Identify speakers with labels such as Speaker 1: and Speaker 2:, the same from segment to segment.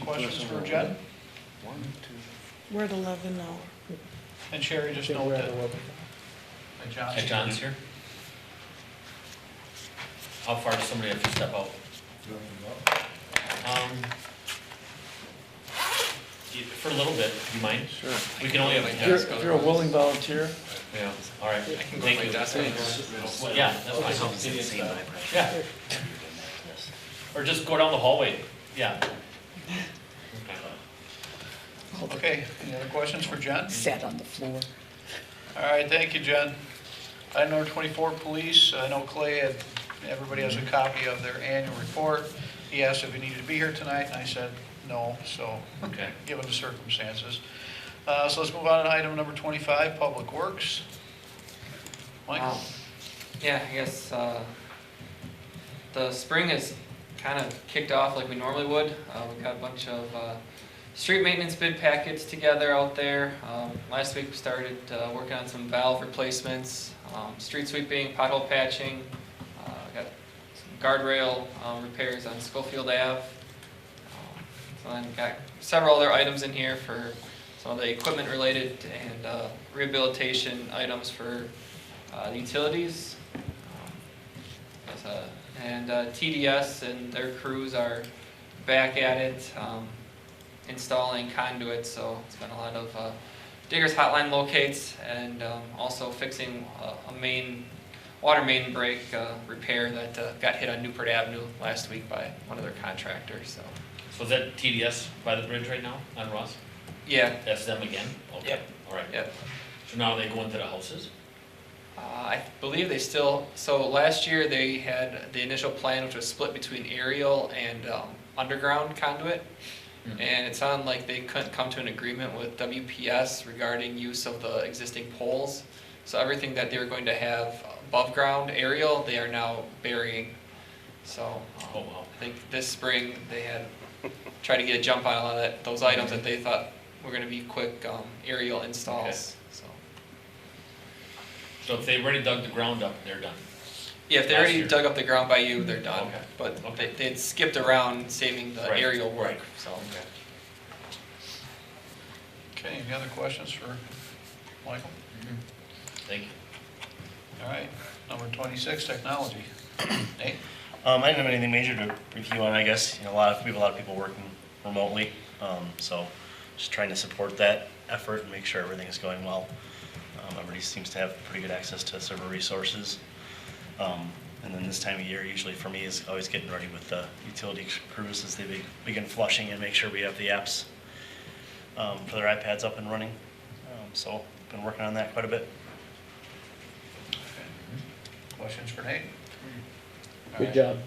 Speaker 1: questions for Jed?
Speaker 2: We're at eleven now.
Speaker 1: And Sherry just noted that. and John's
Speaker 3: And John's here? How far does somebody have to step out? Um, y- For a little bit, you mind?
Speaker 4: Sure.
Speaker 3: We can only have
Speaker 5: If
Speaker 3: a
Speaker 4: You're,
Speaker 3: desk.
Speaker 4: if you're a willing volunteer,
Speaker 3: Yeah, all right.
Speaker 5: I can go to
Speaker 3: Thank
Speaker 5: my
Speaker 3: you.
Speaker 5: desk.
Speaker 3: Well, yeah, that's fine. Yeah. Or just go down the hallway, yeah. Okay.
Speaker 1: Okay, any other questions for Jen?
Speaker 6: sat on the floor.
Speaker 1: All right, thank you, Jen. Item number 24, police. I know Clay had, everybody has a copy of their annual report. He asked if he needed to be here tonight, and I said no, so,
Speaker 3: Okay.
Speaker 1: given the circumstances. Uh, So let's move on to item number 25, Public Works. Michael?
Speaker 7: Um, Yeah, I guess, uh, the spring is kind of kicked off like we normally would. Uh, we got a bunch of, uh, street maintenance bid packets together out there. Um, last week we started, uh, working on some valve replacements, um, street sweeping, pothole patching. Uh, we got some guardrail, um, repairs on Schofield Ave. Um, So then we got several other items in here for some of the equipment related and, uh, rehabilitation items for, uh, the utilities. um, as a- And uh, TDS and their crews are back at it, um, installing conduits, so it's been a lot of uh, diggers hotline locates and um, also fixing uh, a- a main, water main break uh, repair that uh, got hit on Newport Avenue last week by one of their contractors, so.
Speaker 3: So is that TDS by the bridge right now on Ross?
Speaker 7: Yeah,
Speaker 3: That's them again? Okay,
Speaker 7: Yep.
Speaker 3: all right.
Speaker 7: yeah.
Speaker 3: So now they go into the houses?
Speaker 7: Uh, I believe they still, so last year they had the initial plan, which was split between aerial and um, underground conduit.
Speaker 3: Mhm.
Speaker 7: And it sounded like they couldn't come to an agreement with WPS regarding use of the existing poles. So everything that they were going to have above ground aerial, they are now burying. So um,
Speaker 3: Oh, wow.
Speaker 7: I think this spring they had tried to get a jump on a lot of that, those items that they thought were going to be quick um, aerial installs, so.
Speaker 3: So if they already dug the ground up, they're done?
Speaker 7: Yeah, if they
Speaker 3: Last
Speaker 7: already
Speaker 3: year.
Speaker 7: dug up the ground by you, they're done.
Speaker 3: Okay.
Speaker 7: But
Speaker 3: Okay.
Speaker 7: they, they'd skipped around saving the
Speaker 3: Right,
Speaker 7: aerial work,
Speaker 3: right.
Speaker 7: so.
Speaker 1: Okay, any other questions for Michael?
Speaker 3: Thank you.
Speaker 1: All right, number 26, Technology. Nate?
Speaker 8: Um, I didn't have anything major to review on, I guess. You know, a lot of, we have a lot of people working remotely, um, so just trying to support that effort and make sure everything is going well. Um, everybody seems to have pretty good access to server resources. Um, and then this time of year, usually for me, is always getting ready with the utility crews as they be, begin flushing and make sure we have the apps um, for their iPads up and running. Um, so, been working on that quite a bit.
Speaker 1: Questions for Nate? All
Speaker 4: good
Speaker 1: right.
Speaker 4: job.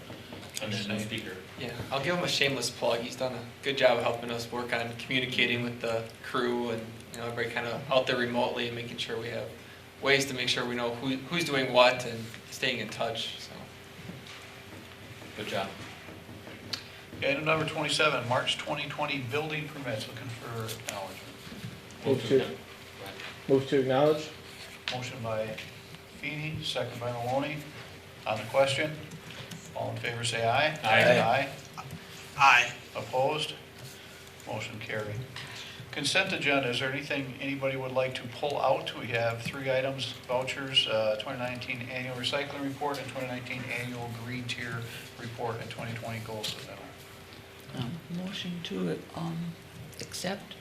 Speaker 3: And there's no speaker.
Speaker 7: Yeah, I'll give him a shameless plug. He's done a good job of helping us work on communicating with the crew and, you know, everybody kind of out there remotely and making sure we have ways to make sure we know who, who's doing what and staying in touch, so.
Speaker 3: Good job.
Speaker 1: Okay, Item number 27, March 2020 building permits, looking for acknowledgement.
Speaker 4: Move to-
Speaker 3: Right.
Speaker 4: Move to acknowledge?
Speaker 1: Motion by Feeny, second by Maloney. On the question, all in favor say aye.
Speaker 3: Aye.
Speaker 1: Aye. Opposed? Motion carried. Consent agenda, is there anything anybody would like to pull out? We have three items, vouchers, uh, 2019 annual recycling report, and 2019 annual green tier report, and 2020 goals of that.
Speaker 6: Um, Motion to um, accept,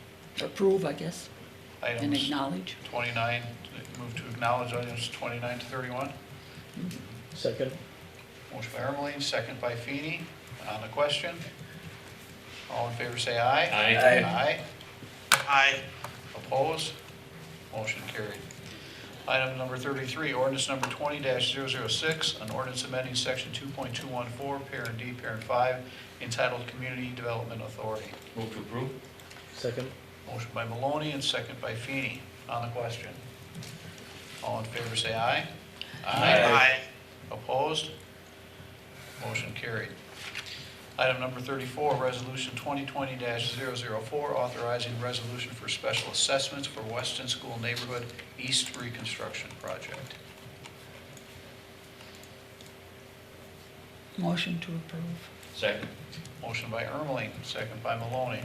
Speaker 6: approve, I guess, and
Speaker 1: Items
Speaker 6: acknowledge.
Speaker 1: 29, move to acknowledge items 29 to 31.
Speaker 4: Second?
Speaker 1: Motion by Ermeline, second by Feeny. On the question, all in favor say aye.
Speaker 3: Aye.
Speaker 1: Aye. Aye. Opposed? Motion carried. Item number 33, ordinance number 20-006, an ordinance amending section 2.214, parent D, parent 5, entitled Community Development Authority.
Speaker 3: Move to approve?
Speaker 4: Second?
Speaker 1: Motion by Maloney and second by Feeny. On the question, all in favor say aye.
Speaker 3: Aye.
Speaker 1: Opposed? Motion carried. Item number 34, Resolution 2020-004, authorizing resolution for special assessments for Weston School Neighborhood East Reconstruction Project.
Speaker 6: Motion to approve.
Speaker 3: Second.
Speaker 1: Motion by Ermeling, second by Maloney.